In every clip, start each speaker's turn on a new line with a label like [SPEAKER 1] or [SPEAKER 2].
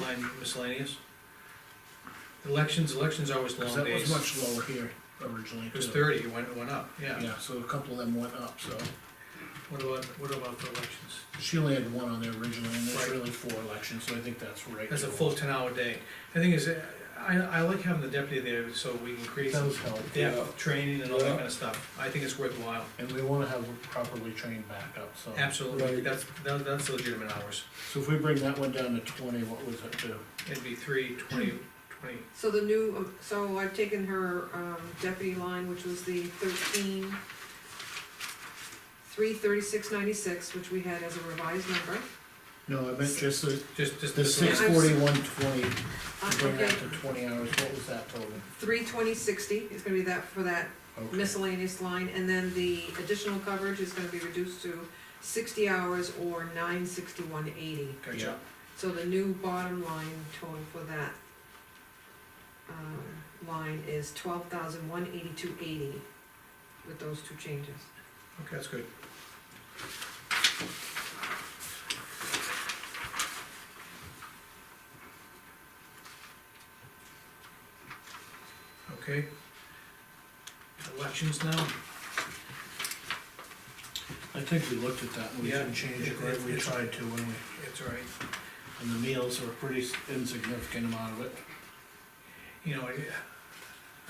[SPEAKER 1] line miscellaneous. Elections, elections are always
[SPEAKER 2] Cause
[SPEAKER 1] long
[SPEAKER 2] that was
[SPEAKER 1] days.
[SPEAKER 2] much lower here originally
[SPEAKER 1] It was
[SPEAKER 2] too.
[SPEAKER 1] thirty, it went, it went up, yeah.
[SPEAKER 2] Yeah, so a couple of them went up, so,
[SPEAKER 1] What about, what about the elections?
[SPEAKER 2] she only had one on there originally, and there's
[SPEAKER 1] Right.
[SPEAKER 2] really four elections, so I think that's right.
[SPEAKER 1] That's a
[SPEAKER 2] too.
[SPEAKER 1] full ten hour day. The thing is, I, I like having the deputy there so we can create some
[SPEAKER 2] Those help,
[SPEAKER 3] Yeah.
[SPEAKER 1] depth, training and all that
[SPEAKER 3] Yeah.
[SPEAKER 1] kinda stuff. I think it's worthwhile.
[SPEAKER 2] and we wanna have properly trained backup, so.
[SPEAKER 1] Absolutely,
[SPEAKER 3] Right.
[SPEAKER 1] that's, that- that's legitimate hours.
[SPEAKER 2] So if we bring that one down to twenty, what was it to?
[SPEAKER 1] It'd be three, twenty, twenty,
[SPEAKER 4] So the new, um, so I've taken her um, deputy line, which was the thirteen, three thirty-six ninety-six, which we had as a revised number.
[SPEAKER 2] No, I meant just the,
[SPEAKER 1] just, just.
[SPEAKER 2] the
[SPEAKER 1] this one.
[SPEAKER 2] six forty-one twenty,
[SPEAKER 4] Uh,
[SPEAKER 2] bring that
[SPEAKER 4] Okay,
[SPEAKER 2] to twenty hours, what was that total?
[SPEAKER 4] three twenty sixty is gonna be that, for that
[SPEAKER 2] Okay.
[SPEAKER 4] miscellaneous line, and then the additional coverage is gonna be reduced to sixty hours or nine sixty-one eighty.
[SPEAKER 1] Gotcha.
[SPEAKER 4] So the new bottom line total for that um, line is twelve thousand one eighty-two eighty with those two changes.
[SPEAKER 1] Okay, that's good. Okay. Elections now?
[SPEAKER 2] I think we looked at that, and we
[SPEAKER 1] Yeah.
[SPEAKER 2] didn't change it, right? we
[SPEAKER 1] It's-
[SPEAKER 2] tried to, when we,
[SPEAKER 1] It's all right.
[SPEAKER 2] and the meals are a pretty insignificant amount of it.
[SPEAKER 1] You know, I-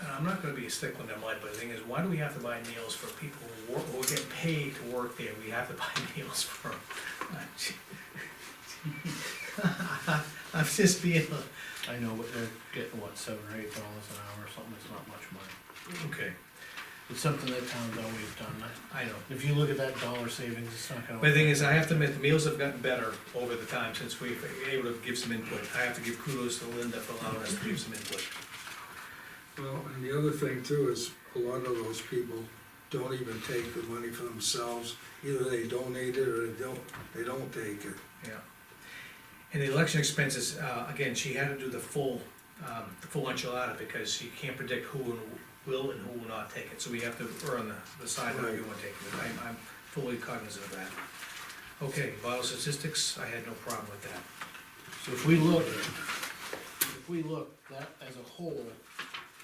[SPEAKER 1] and I'm not gonna be a stickler in mud, but the thing is, why do we have to buy meals for people who work, who get paid to work there? We have to buy meals for them. I'm just being, a-
[SPEAKER 2] I know, but they're getting, what, seven or eight dollars an hour or something, it's not much money.
[SPEAKER 1] okay,
[SPEAKER 2] It's something that town's always done, I-
[SPEAKER 1] I know.
[SPEAKER 2] if you look at that dollar savings, it's not gonna.
[SPEAKER 1] But the thing is, I have to admit, the meals have gotten better over the time since we've been able to give some input. I have to give kudos to Linda for allowing us to give some input.
[SPEAKER 3] Well, and the other thing too is, a lot of those people don't even take the money for themselves, either they donate it or they don't, they don't take it.
[SPEAKER 1] Yeah. And the election expenses, uh, again, she had to do the full, um, the full enchilada because you can't predict who and will and who will not take it, so we have to err on the, the side that we
[SPEAKER 3] Right.
[SPEAKER 1] want to take it. I'm, I'm fully cognizant of that. Okay, vital statistics, I had no problem with that.
[SPEAKER 2] So if we look, if we look, that as a whole,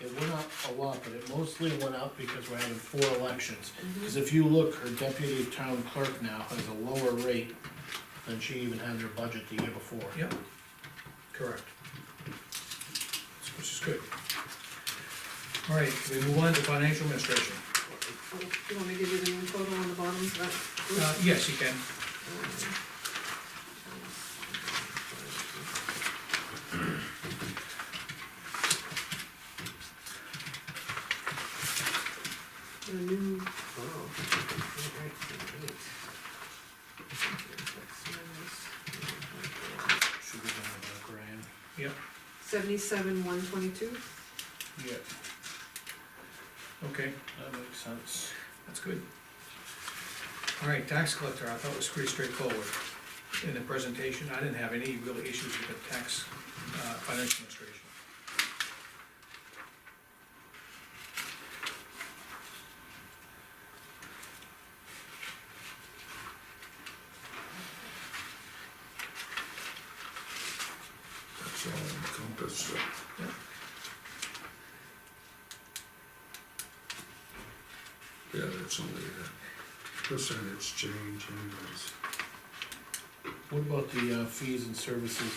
[SPEAKER 2] it went up a lot, but it mostly went up because we're having four elections. Cause if you look, her deputy town clerk now has a lower rate than she even had in her budget the year before.
[SPEAKER 1] Yep, correct. Which is good. All right, we move on to financial administration.
[SPEAKER 4] Oh, Do you want me to give you the new total on the bottom of that? group?
[SPEAKER 1] Uh, yes, you can.
[SPEAKER 4] The new, oh. all right, eight. Six, minus,
[SPEAKER 2] Should be down about a grand.
[SPEAKER 1] Yep,
[SPEAKER 4] Seventy-seven, one twenty-two,
[SPEAKER 2] Yeah.
[SPEAKER 1] okay,
[SPEAKER 2] That makes sense.
[SPEAKER 1] that's good. All right, tax collector, I thought was pretty straightforward. In the presentation, I didn't have any real issues with the tax, uh, financial administration.
[SPEAKER 3] That's all encompassed. Yeah, that's only a percentage change anyways.
[SPEAKER 2] What about the uh, fees and services?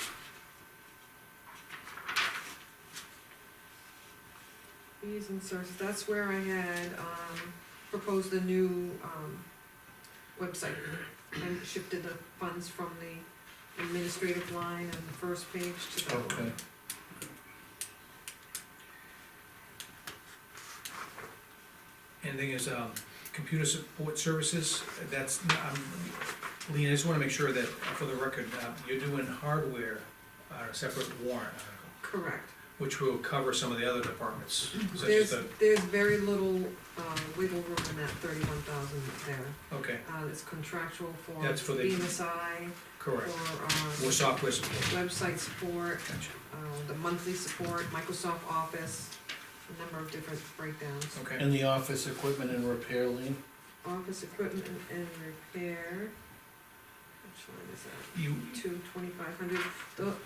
[SPEAKER 4] fees and services, that's where I had, um, proposed a new, um, website. And shifted the funds from the administrative line and the first page to that
[SPEAKER 2] Okay.
[SPEAKER 4] one.
[SPEAKER 1] And the thing is, um, computer support services, that's, um, Lean, I just wanna make sure that, for the record, uh, you're doing hardware on a separate warrant article.
[SPEAKER 4] Correct.
[SPEAKER 1] which will cover some of the other departments, such as
[SPEAKER 4] There's,
[SPEAKER 1] the,
[SPEAKER 4] there's very little, uh, wiggle room in that thirty-one thousand there.
[SPEAKER 1] okay,
[SPEAKER 4] Uh, it's contractual for
[SPEAKER 1] That's for the-
[SPEAKER 4] BMSI, for,
[SPEAKER 1] correct. Or
[SPEAKER 4] uh,
[SPEAKER 1] software support,
[SPEAKER 4] website support,
[SPEAKER 1] gotcha,
[SPEAKER 4] uh, the monthly support, Microsoft Office, a number of different breakdowns.
[SPEAKER 1] okay,
[SPEAKER 2] And the office equipment and repair lien?
[SPEAKER 4] Office equipment and- and repair, which line is that?
[SPEAKER 1] you,
[SPEAKER 4] Two twenty-five hundred,